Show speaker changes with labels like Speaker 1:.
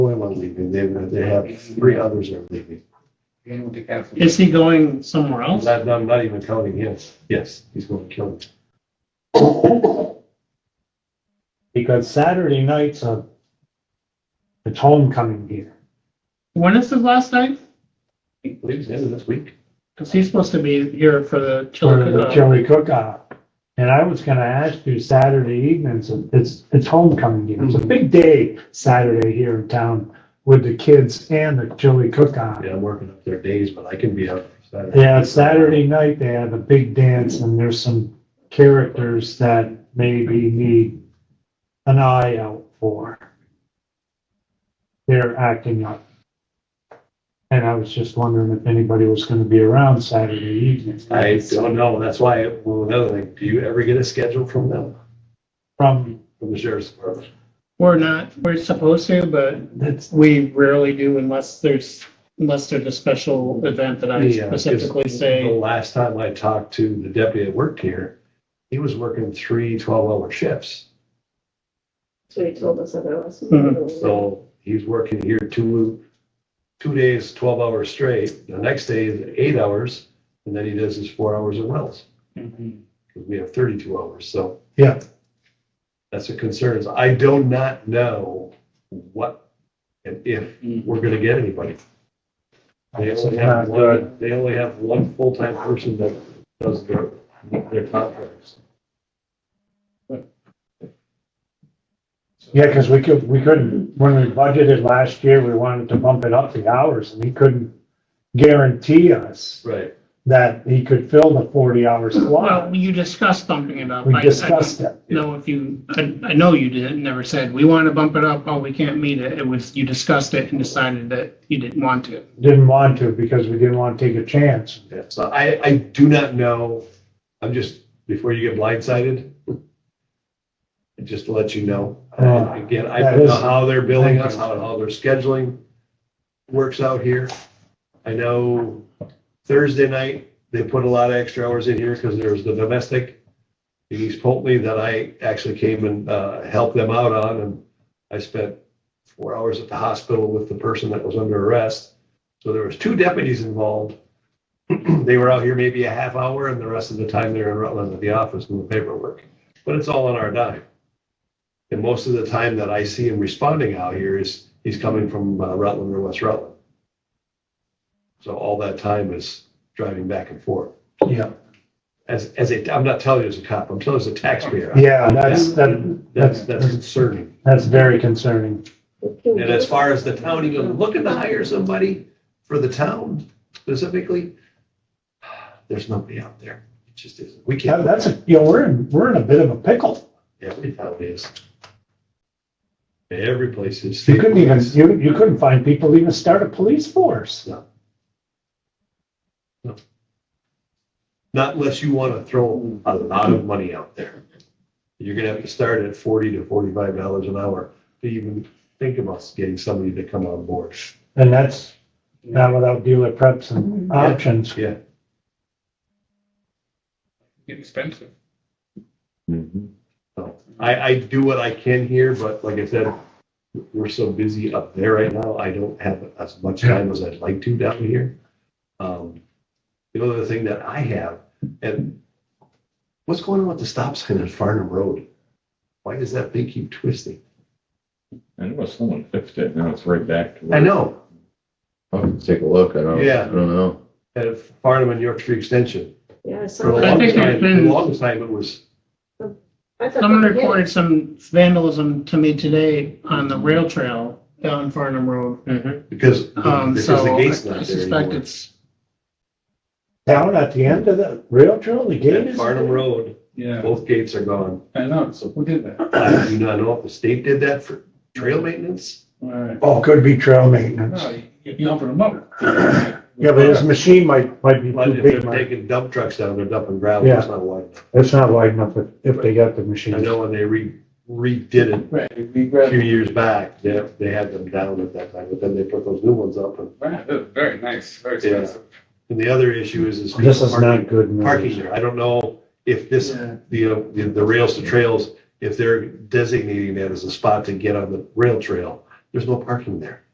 Speaker 1: leaving. They, they have three others are leaving.
Speaker 2: Is he going somewhere else?
Speaker 1: Not, I'm not even counting him. Yes, he's going to kill him.
Speaker 3: because Saturday night's a, it's homecoming here.
Speaker 2: When is his last night?
Speaker 1: He leaves the end of this week.
Speaker 2: Because he's supposed to be here for the
Speaker 3: for the
Speaker 2: chili.
Speaker 3: chili cook-off. And I was gonna ask you Saturday evenings, it's, it's homecoming game. It's a big day Saturday here in town with the kids and the chili cook-off.
Speaker 1: Yeah, I'm working up their days, but I can be up Saturday.
Speaker 3: Yeah, Saturday night, they have a big dance and there's some characters that maybe need an eye out for. They're acting up. And I was just wondering if anybody was gonna be around Saturday evening.
Speaker 1: I don't know. That's why, well, another thing, do you ever get a schedule from them,
Speaker 3: From,
Speaker 1: from the sheriff's department?
Speaker 2: We're not, we're supposed to, but
Speaker 3: that's,
Speaker 2: we rarely do unless there's, unless there's a special event that I
Speaker 1: Yeah, 'cause
Speaker 2: specifically
Speaker 1: The
Speaker 2: say.
Speaker 1: last time I talked to the deputy that worked here, he was working three 12-hour shifts.
Speaker 4: So he told us otherwise.
Speaker 2: Mhm.
Speaker 1: Mm-hmm. So he's working here two, two days, 12 hours straight. The next day is eight hours, and then he does his four hours at Wells.
Speaker 5: Mm-hmm.
Speaker 1: Because we have 32 hours, so.
Speaker 3: Yeah.
Speaker 1: That's a concern. I do not know what and if we're gonna get anybody. They only have one, they only have one full-time person that does their, their contracts.
Speaker 3: Yeah, because we could, we couldn't, when we budgeted last year, we wanted to bump it up the hours and he couldn't guarantee us
Speaker 1: Right.
Speaker 3: that he could fill the forty hour
Speaker 2: Well,
Speaker 3: slot.
Speaker 2: you discussed bumping it up.
Speaker 3: We
Speaker 2: I- I
Speaker 3: discussed it.
Speaker 2: don't know if you, I, I know you didn't, never said, we want to bump it up, oh, we can't meet it. It was, you discussed it and decided that you didn't want to.
Speaker 3: Didn't want to because we didn't want to take a chance.
Speaker 1: Yeah, so I, I do not know, I'm just, before you get blindsided, just to let you know,
Speaker 3: Uh,
Speaker 1: again, I
Speaker 3: that
Speaker 1: don't know
Speaker 3: is-
Speaker 1: how they're billing us, how, how their scheduling works out here. I know Thursday night, they put a lot of extra hours in here because there's the domestic in East Polkney that I actually came and, uh, helped them out on, and I spent four hours at the hospital with the person that was under arrest. So there was two deputies involved. They were out here maybe a half hour, and the rest of the time they're in Rutland at the office doing paperwork. But it's all on our dime. And most of the time that I see him responding out here is, he's coming from uh, Rutland or West Rutland. So all that time is driving back and forth.
Speaker 3: Yeah.
Speaker 1: As, as a, I'm not telling you as a cop, I'm telling you as a taxpayer.
Speaker 3: Yeah, that's, that,
Speaker 1: That's, that's concerning.
Speaker 3: that's very concerning.
Speaker 1: And as far as the town, even looking to hire somebody for the town specifically, there's nobody out there. It just isn't. We
Speaker 3: Yeah,
Speaker 1: can't.
Speaker 3: that's, a you know, we're in, we're in a bit of a pickle.
Speaker 1: Every town is. Every place is.
Speaker 3: You couldn't even, you, you couldn't find people to even start a police force.
Speaker 1: Not unless you want to throw a lot of money out there. You're gonna have to start at forty to forty-five dollars an hour to even think about getting somebody to come on board.
Speaker 3: And that's not without dealer preps and options.
Speaker 1: Yeah,
Speaker 5: expensive.
Speaker 1: so I, I do what I can here, but like I said, we're so busy up there right now, I don't have as much time as I'd like to down here. Um, The other thing that I have, and what's going on with the stop sign on Farnham Road? Why does that thing keep twisting?
Speaker 6: I know someone fixed it, now it's right back to.
Speaker 1: I
Speaker 6: where-
Speaker 1: know,
Speaker 6: I'll have to take a look, I don't,
Speaker 1: Yeah.
Speaker 6: I don't know.
Speaker 1: at Farnham and Yorkshire Extension.
Speaker 4: Yeah, so.
Speaker 1: For the
Speaker 2: I
Speaker 1: longest
Speaker 2: think there's
Speaker 1: time,
Speaker 2: been-
Speaker 1: the longest time it was,
Speaker 4: I thought
Speaker 2: Someone
Speaker 4: they did.
Speaker 2: reported some vandalism to me today on the rail trail down Farnham Road.
Speaker 1: because,
Speaker 2: Um,
Speaker 1: because
Speaker 2: so
Speaker 1: the
Speaker 2: I
Speaker 1: gate's not there
Speaker 2: suspect
Speaker 1: anymore.
Speaker 2: it's,
Speaker 3: Down at the end of the rail trail, the gate
Speaker 1: At
Speaker 3: is.
Speaker 1: Farnham Road,
Speaker 5: Yeah,
Speaker 1: both gates are gone.
Speaker 5: I know, so who did that?
Speaker 1: I do not know if the state did that for trail maintenance.
Speaker 5: Alright.
Speaker 3: Oh, could be trail
Speaker 1: Oh,
Speaker 3: maintenance.
Speaker 5: No, you, you open them up.
Speaker 3: Yeah, but this machine might, might be
Speaker 1: But
Speaker 3: too
Speaker 1: if they're
Speaker 3: big. Mike.
Speaker 1: taking dump trucks down, they're dumping gravel, it's not wide enough.
Speaker 3: It's not wide enough if, if they got the
Speaker 1: I
Speaker 3: machine.
Speaker 1: know when they re, redid it
Speaker 5: Right, we
Speaker 1: a
Speaker 5: grabbed,
Speaker 1: few years back, they, they had them down at that time, but then they put those new ones up. And
Speaker 5: right, that was very nice, very
Speaker 1: Yeah.
Speaker 5: expensive.
Speaker 1: and the other issue is, is.
Speaker 3: This is
Speaker 1: parking-
Speaker 3: not good
Speaker 1: Parking
Speaker 3: news.
Speaker 1: there. I don't know if this
Speaker 5: Yeah.
Speaker 1: the, uh, the, the rails to trails, if they're designating that as a spot to get on the rail trail, there's no parking there.